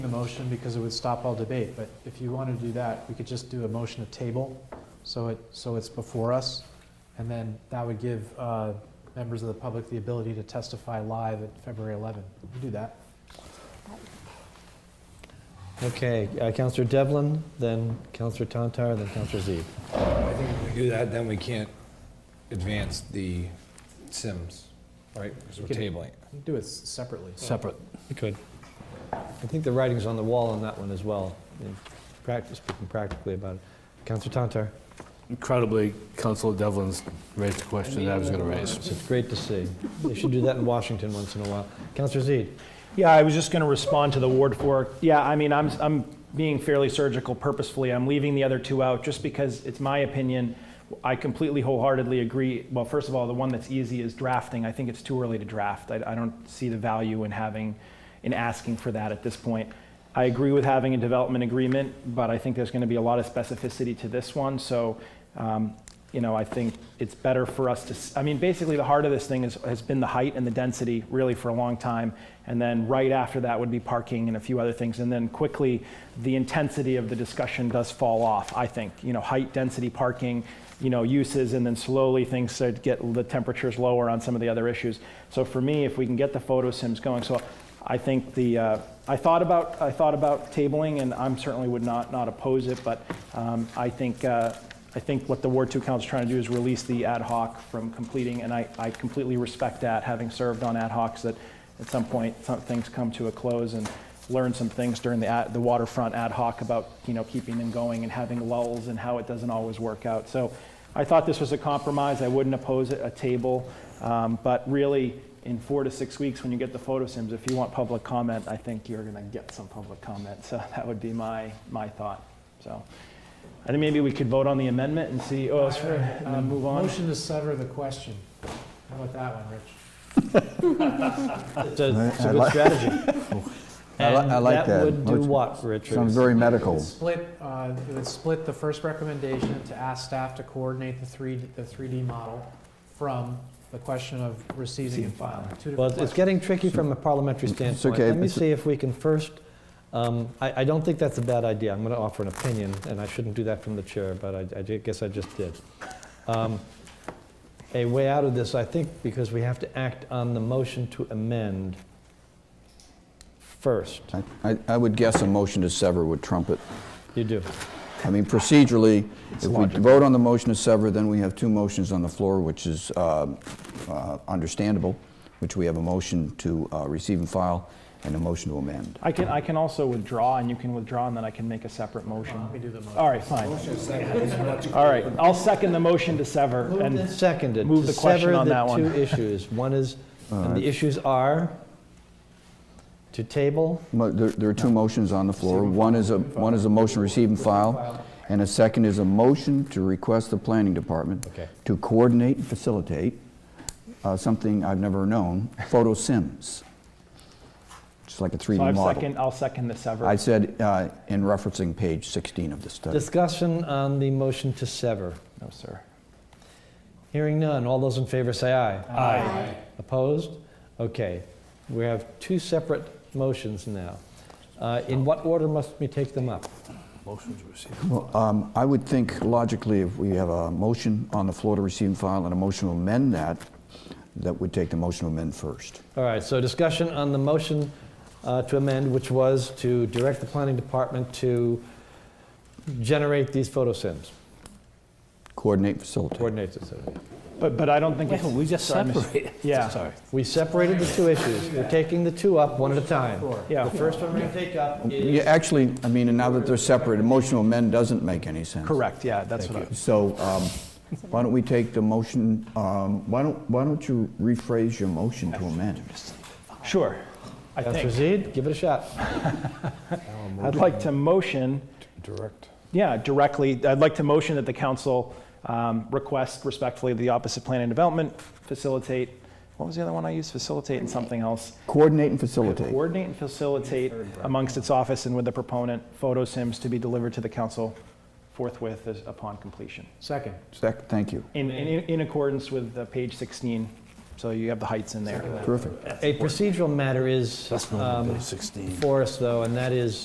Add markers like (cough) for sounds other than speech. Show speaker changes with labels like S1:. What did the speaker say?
S1: the motion because it would stop all debate, but if you want to do that, we could just do a motion to table, so it, so it's before us, and then that would give uh, members of the public the ability to testify live at February 11. We could do that.
S2: Okay, uh, Counselor Devlin, then Counselor Tantar, then Counselor Z.
S3: I think if we do that, then we can't advance the Sims, right? Because we're tabling. it.
S1: We could Do it s- separately.
S4: Separate.
S2: You could. I think the writing's on the wall on that one as well, in practice, speaking practically about it. Counselor Tantar,
S4: Incredibly, Council Devlin's raised the question that I was going to raise.
S2: it's great to see. They should do that in Washington once in a while. Counselor Z,
S5: Yeah, I was just going to respond to the Ward 4. Yeah, I mean, I'm, I'm being fairly surgical purposefully. I'm leaving the other two out just because it's my opinion. I completely wholeheartedly agree. Well, first of all, the one that's easy is drafting. I think it's too early to draft. I, I don't see the value in having, in asking for that at this point. I agree with having a development agreement, but I think there's going to be a lot of specificity to this one. So, um, you know, I think it's better for us to. s- I mean, basically, the heart of this thing is, has been the height and the density really for a long time. And then right after that would be parking and a few other things. And then quickly, the intensity of the discussion does fall off, I think. You know, height, density, parking, you know, uses, and then slowly things start to get the temperatures lower on some of the other issues. So for me, if we can get the photo sims going, so I think the, uh, I thought about, I thought about tabling, and I'm certainly would not, not oppose it, but um, I think, uh, I think what the Ward 2 Council is trying to do is release the ad hoc from completing, and I, I completely respect that, having served on ad hocs, that at some point, some things come to a close, and learn some things during the, ad- the waterfront ad hoc about, you know, keeping them going and having lulls and how it doesn't always work out. So I thought this was a compromise. I wouldn't oppose it, a table. Um, But really, in four to six weeks, when you get the photo sims, if you want public comment, I think you're going to get some public comment. So that would be my, my thought. So I think maybe we could vote on the amendment and see, oh, sorry, and then
S1: Um,
S5: move on.
S1: Motion to sever the question. How about that one, Rich?
S2: it's a it's
S6: I- I
S2: a good
S6: like-
S2: strategy.
S6: (laughs) I li- I like
S2: And
S6: that.
S2: that would do
S6: Which-
S2: what, Richard?
S6: Sounds very medical.
S1: Split, uh, it would split the first recommendation to ask staff to coordinate the 3D, the 3D model from the question of receiving and filing. Two different
S2: Well, it's
S1: questions.
S2: getting tricky from a parliamentary standpoint.
S6: okay,
S2: Let me
S6: it's-
S2: see if we can first, um, I I don't think that's a bad idea. I'm going to offer an opinion, and I shouldn't do that from the chair, but I- I ju- guess I just did. Um, A way out of this, I think, because we have to act on the motion to amend first.
S6: I- I, I would guess a motion to sever would trump it.
S2: You do.
S6: I mean, procedurally, if we
S2: logical.
S6: vote on the motion to sever, then we have two motions on the floor, which is uh, uh, understandable, which we have a motion to uh, receive and file and a motion to amend.
S5: I can, I can also withdraw, and you can withdraw, and then I can make a separate motion.
S1: Let me do the motion.
S5: All right, fine. All right, I'll second the motion to sever.
S2: Moved and
S5: And
S2: seconded.
S5: move the question on that
S2: To
S5: one.
S2: sever the two issues. One is, and the issues are to table,
S6: Mo- There there are two motions on the floor. One is a, one is a motion to receive and file, and a second is a motion to request the planning department
S2: Okay.
S6: to coordinate and facilitate uh, something I've
S2: (laughs)
S6: never known, photo sims, just like a 3D
S5: so I've
S6: model.
S5: second, I'll second the sever.
S6: I said uh, in referencing page 16 of the study.
S2: discussion on the motion to sever.
S5: No, sir.
S2: Hearing none, all those in favor say aye.
S4: Aye.
S2: Opposed? Okay, we have two separate motions now. Uh, In what order must we take them up?
S4: Motion's received.
S6: Well, um, I would think logically, if we have a motion on the floor to receive and file and a motion to amend that, that would take the motion to amend first.
S2: All right, so discussion on the motion uh, to amend, which was to direct the planning department to generate these photo sims,
S6: Coordinate, facilitate.
S2: coordinate this.
S5: But, but I don't think it's.
S4: We just
S5: Sorry, Mr.
S4: separated.
S5: (laughs) Yeah.
S4: Sorry.
S2: We separated the two issues. We're taking the two up one at a time.
S5: Yeah.
S2: The first one we're going to take up is...
S6: Yeah, actually, I mean, and now that they're separate, a motion to amend doesn't make any sense.
S5: Correct, yeah, that's what I.
S6: So um, why don't we take the motion, um, why don't, why don't you rephrase your motion to amend?
S5: Sure, I
S2: Counselor
S5: think.
S2: Zede, give it a shot.
S5: I'd like to motion,
S4: Direct.
S5: yeah, directly, I'd like to motion that the council um, request respectfully the opposite plan and development facilitate, what was the other one I used? Facilitate and something else.
S6: Coordinate and facilitate.
S5: Coordinate and facilitate amongst its office and with the proponent, photo sims to be delivered to the council forthwith as- upon completion.
S1: Second.
S6: Sec, thank you.
S5: In, in, in accordance with uh, page 16 So you have the heights in there.
S6: Terrific.
S2: A procedural matter is
S4: That's not
S2: um,
S4: Bill 16.
S2: for us, though, and that is